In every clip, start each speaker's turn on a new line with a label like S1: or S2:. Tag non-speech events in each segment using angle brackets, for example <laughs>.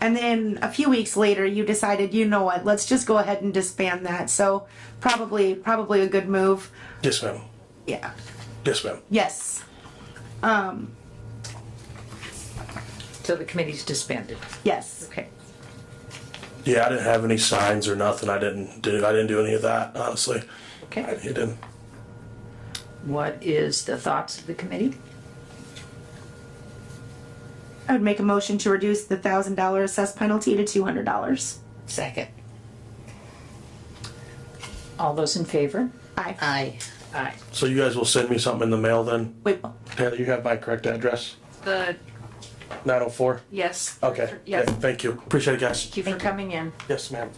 S1: And then a few weeks later, you decided, you know what, let's just go ahead and disband that. So probably, probably a good move.
S2: Yes, ma'am.
S1: Yeah.
S2: Yes, ma'am.
S1: Yes. Um,
S3: So the committee's disbanded.
S1: Yes.
S3: Okay.
S2: Yeah, I didn't have any signs or nothing. I didn't do. I didn't do any of that. Honestly, I
S3: Okay.
S2: didn't.
S3: What is the thoughts of the committee?
S1: I would make a motion to reduce the thousand dollar assessed penalty to two hundred dollars.
S4: Second.
S3: All those in favor?
S1: Aye.
S4: Aye.
S3: Aye.
S2: So you guys will send me something in the mail then.
S1: Wait.
S2: Heather, you have my correct address.
S3: The,
S2: Nine oh four.
S3: yes.
S2: Okay.
S3: Yes.
S2: Yeah, Thank you. Appreciate it, guys.
S3: Thank you for coming in.
S2: Yes, ma'am.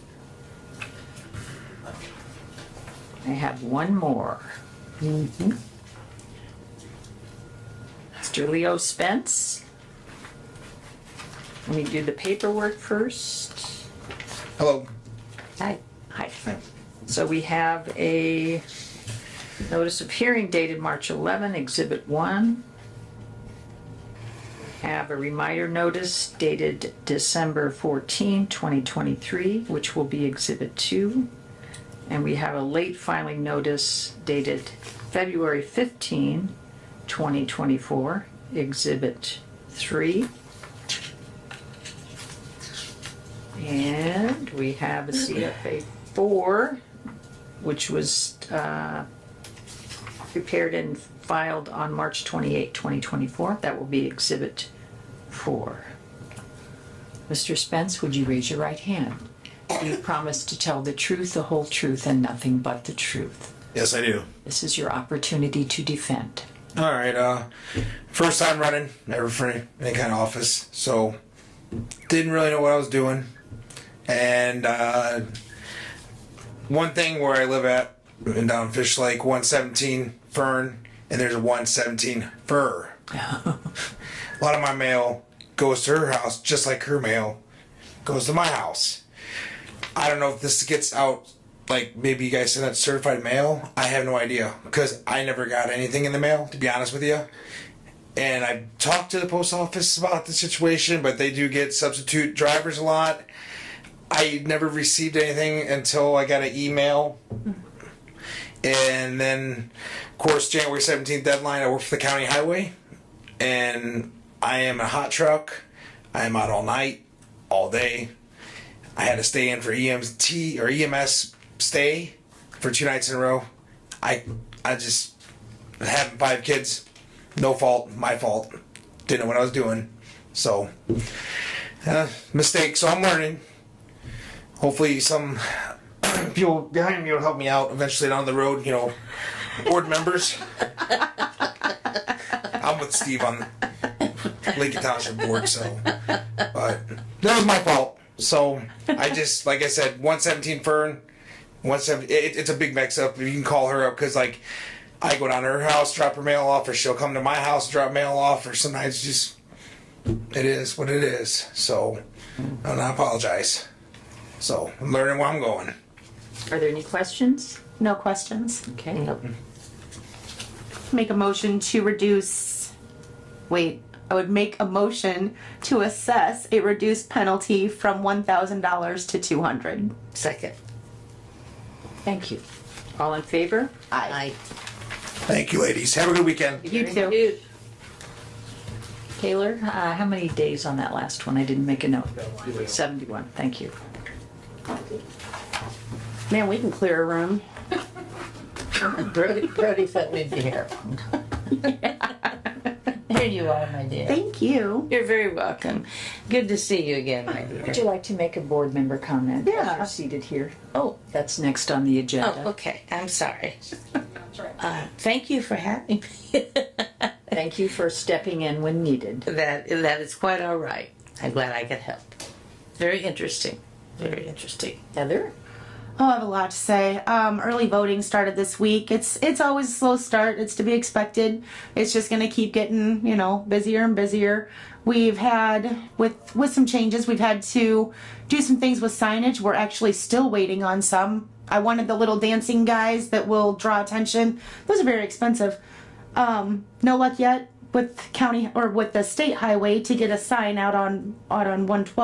S3: I have one more. Mm-hmm. Mr. Leo Spence. Let me do the paperwork first.
S5: Hello.
S3: Hi. Hi. So we have a notice of hearing dated March 11, Exhibit 1. Have a reminder notice dated December 14, 2023, which will be Exhibit 2. And we have a late filing notice dated February 15, 2024, Exhibit 3. And we have a CFA four, which was uh, prepared and filed on March 28, 2024. That will be Exhibit 4. Mr. Spence, would you raise your right hand? Do you promise to tell the truth, the whole truth, and nothing but the truth?
S5: Yes, I do.
S3: This is your opportunity to defend.
S5: All right. Uh, first time running, never for any, any kind of office, so didn't really know what I was doing. And uh, one thing where I live at, in down Fish Lake, 117 Fern, and there's a 117 Fur. a lot of my mail goes to her house, just like her mail goes to my house. I don't know if this gets out. Like maybe you guys send out certified mail. I have no idea because I never got anything in the mail. To be honest with you, and I talked to the post office about the situation, but they do get substitute drivers a lot. I never received anything until I got an email. And then, of course, January 17th deadline, I work for the county highway. And I am a hot truck. I am out all night, all day. I had to stay in for EMT or EMS stay for two nights in a row. I, I just, having five kids, no fault, my fault. Didn't know what I was doing. So, uh, mistake. So I'm learning. Hopefully, some <clears throat> people behind me will help me out eventually down the road, you know, board members. I'm with Steve on Lincoln Township Board, so. But that was my fault. So I just, like I said, 117 Fern, 170, it, it's a big mix up. You can call her up because, like, I go down to her house, drop her mail off, or she'll come to my house, drop mail off, or sometimes just it is what it is. So, and I apologize. So I'm learning where I'm going.
S3: Are there any questions?
S1: No questions.
S3: Okay.
S1: Make a motion to reduce. Wait. I would make a motion to assess a reduced penalty from one thousand dollars to two hundred.
S4: Second.
S3: Thank you. All in favor?
S4: Aye.
S5: Thank you, ladies. Have a good weekend.
S1: You too.
S3: Taylor, uh, how many days on that last one? I didn't make a note. 71, thank you.
S1: Man, we can clear a room.
S4: Brody, Brody sent me the <laughs> hair. Here you are, my dear.
S1: Thank you.
S4: You're very welcome. Good to see you again, my
S3: Would
S4: dear.
S3: you like to make a board member comment? as
S4: Yeah.
S3: You're seated here.
S4: Oh,
S3: That's next on the
S4: oh,
S3: agenda.
S4: okay. I'm sorry. Uh, thank you for having me. <laughs>
S3: Thank you for stepping in when needed.
S4: that that is quite all right. I'm glad I could help. Very interesting. Very interesting.
S3: Heather?
S1: Oh, I have a lot to say. Um, early voting started this week. It's it's always a slow start. It's to be expected. It's just going to keep getting you know busier and busier. We've had with with some changes. We've had to do some things with signage. We're actually still waiting on some. I wanted the little dancing guys that will draw attention. Those are very expensive. Um, no luck yet with county or with the state highway to get a sign out on out on one twelve.